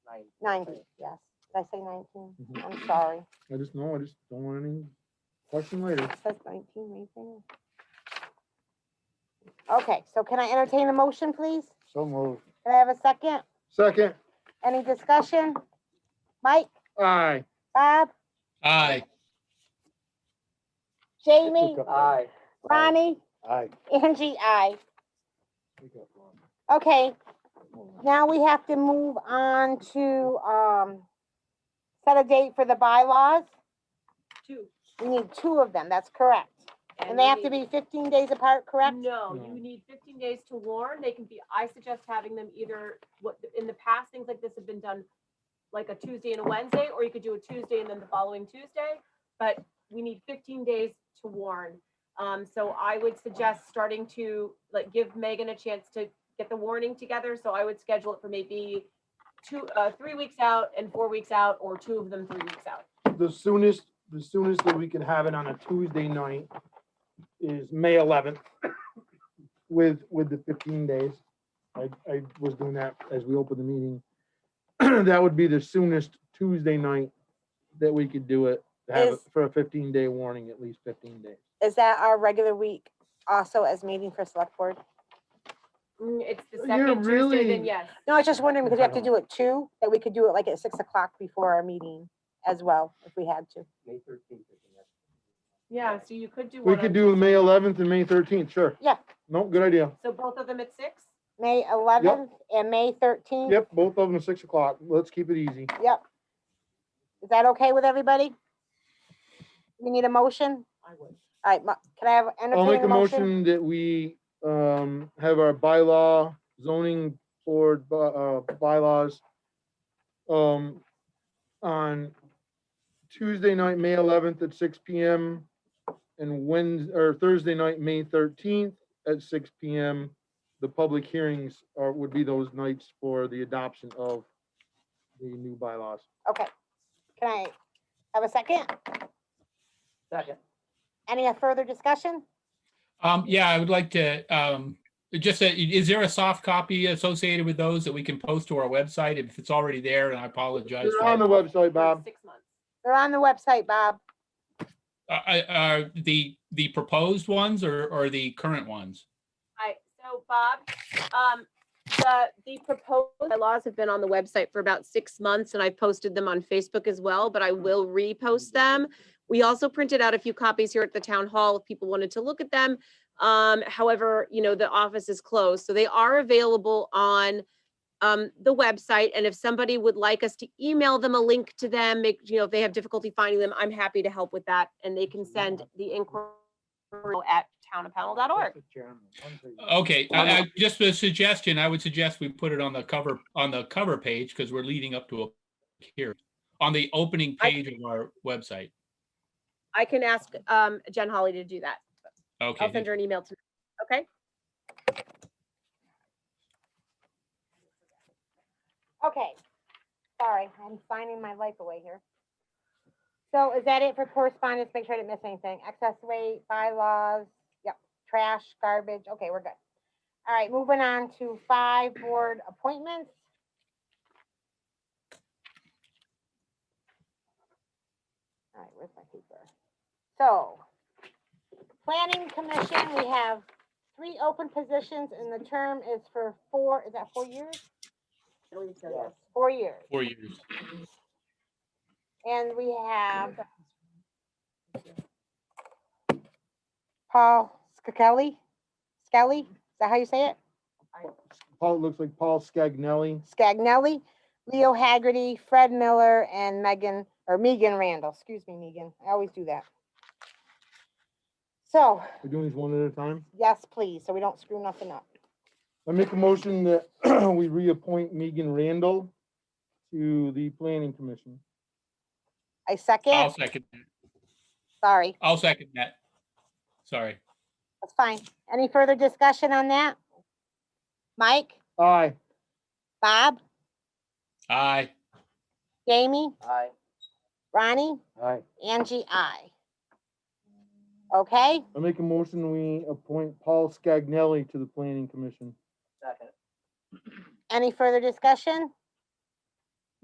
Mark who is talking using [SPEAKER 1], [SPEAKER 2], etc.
[SPEAKER 1] Ninety, yes. Did I say nineteen?
[SPEAKER 2] Mhm.
[SPEAKER 1] I'm sorry.
[SPEAKER 2] I just know, I just don't want any question later.
[SPEAKER 1] It says nineteen right there. Okay, so can I entertain a motion, please?
[SPEAKER 2] So moved.
[SPEAKER 1] Can I have a second?
[SPEAKER 2] Second,
[SPEAKER 1] Any discussion? Mike,
[SPEAKER 2] aye.
[SPEAKER 1] Bob,
[SPEAKER 3] Aye.
[SPEAKER 1] Jamie,
[SPEAKER 2] Aye.
[SPEAKER 1] Ronnie,
[SPEAKER 2] Aye.
[SPEAKER 1] Angie, I. Okay, now we have to move on to, um, set a date for the bylaws.
[SPEAKER 4] Two.
[SPEAKER 1] We need two of them, that's correct. And they have to
[SPEAKER 4] you
[SPEAKER 1] be fifteen days apart, correct?
[SPEAKER 4] need- No,
[SPEAKER 2] No.
[SPEAKER 4] you need fifteen days to warn. They can be, I suggest having them either, what, in the past, things like this have been done like a Tuesday and a Wednesday, or you could do a Tuesday and then the following Tuesday. But we need fifteen days to warn. Um, so I would suggest starting to, like, give Megan a chance to get the warning together. So I would schedule it for maybe two, uh, three weeks out and four weeks out, or two of them three weeks out.
[SPEAKER 2] The soonest, the soonest that we can have it on a Tuesday night is May eleventh with, with the fifteen days. I, I was doing that as we opened the meeting. That would be the soonest Tuesday night that we could do it, to have it
[SPEAKER 1] Is-
[SPEAKER 2] for a fifteen day warning, at least fifteen days.
[SPEAKER 1] Is that our regular week also as meeting for select board?
[SPEAKER 4] Mm, It's the
[SPEAKER 2] You're
[SPEAKER 4] second Tuesday,
[SPEAKER 2] really-
[SPEAKER 4] then yes.
[SPEAKER 1] No, I was just wondering because we have to
[SPEAKER 2] Okay.
[SPEAKER 1] do it two, that we could do it like at six o'clock before our meeting as well, if we had to.
[SPEAKER 5] May thirteenth is the next.
[SPEAKER 4] Yeah, so you could do.
[SPEAKER 2] We
[SPEAKER 4] one on
[SPEAKER 2] could do May eleventh and May thirteenth, sure.
[SPEAKER 1] Yeah.
[SPEAKER 2] No, good idea.
[SPEAKER 4] So both of them at six?
[SPEAKER 1] May eleventh and May thirteenth.
[SPEAKER 2] Yep, both of them at six o'clock. Let's keep it easy.
[SPEAKER 1] Yep. Is that okay with everybody? We need a motion?
[SPEAKER 4] I would.
[SPEAKER 1] All right, mo- can I have,
[SPEAKER 2] I'll
[SPEAKER 1] entertain
[SPEAKER 2] make a
[SPEAKER 1] a motion?
[SPEAKER 2] motion that we, um, have our bylaw zoning board, bu- uh, bylaws. Um, on Tuesday night, May eleventh at six P M. And Wednesday, or Thursday night, May thirteenth at six P M. The public hearings are, would be those nights for the adoption of the new bylaws.
[SPEAKER 1] Okay. Can I have a second?
[SPEAKER 5] Second.
[SPEAKER 1] Any further discussion?
[SPEAKER 3] Um, yeah, I would like to, um, just, a- is there a soft copy associated with those that we can post to our website if it's already there? And I apologize.
[SPEAKER 2] They're
[SPEAKER 3] for-
[SPEAKER 2] on the website,
[SPEAKER 4] For
[SPEAKER 2] Bob.
[SPEAKER 4] Six months.
[SPEAKER 1] They're on the website, Bob.
[SPEAKER 3] Uh, uh, uh, the, the proposed ones or, or the current ones?
[SPEAKER 4] Hi, so Bob, um, the, the proposed bylaws have been on the website for about six months and I posted them on Facebook as well, but I will repost them. We also printed out a few copies here at the town hall if people wanted to look at them. Um, however, you know, the office is closed, so they are available on um, the website. And if somebody would like us to email them a link to them, make, you know, if they have difficulty finding them, I'm happy to help with that. And they can send the inquiry at townofpownell.org.
[SPEAKER 3] Okay, I, I, just a suggestion, I would suggest we put it on the cover, on the cover page because we're leading up to a here, on the opening
[SPEAKER 4] I-
[SPEAKER 3] page of our website.
[SPEAKER 4] I can ask um Jen Holly to do that.
[SPEAKER 3] Okay.
[SPEAKER 4] I'll send her an email to, okay?
[SPEAKER 1] Okay, sorry, I'm finding my life away here. So is that it for correspondence? Make sure I didn't miss anything. Excess weight, bylaws, yep, trash, garbage, okay, we're good. All right, moving on to five board appointments. All right, where's my paper? So, planning commission, we have three open positions and the term is for four, is that four years? Four years.
[SPEAKER 3] Four years.
[SPEAKER 1] And we have Paul Skelly, Skelly, is that how you say it?
[SPEAKER 2] Paul, it looks like Paul Scagnelli.
[SPEAKER 1] Scagnelli, Leo Haggerty, Fred Miller, and Megan, or Megan Randall, excuse me, Megan, I always do that. So,
[SPEAKER 2] We're doing these one at a time.
[SPEAKER 1] yes, please, so we don't screw nothing up.
[SPEAKER 2] I make a motion that we reappoint Megan Randall to the planning commission.
[SPEAKER 1] I
[SPEAKER 3] I'll
[SPEAKER 1] second,
[SPEAKER 3] second, that.
[SPEAKER 1] sorry,
[SPEAKER 3] I'll second that. Sorry.
[SPEAKER 1] that's fine. Any further discussion on that? Mike,
[SPEAKER 2] Aye.
[SPEAKER 1] Bob,
[SPEAKER 3] Aye.
[SPEAKER 1] Jamie,
[SPEAKER 5] Aye.
[SPEAKER 1] Ronnie?
[SPEAKER 5] Aye.
[SPEAKER 1] Angie, I. Okay,
[SPEAKER 2] I make a motion, we appoint Paul Scagnelli to the planning commission.
[SPEAKER 5] Second.
[SPEAKER 1] any further discussion?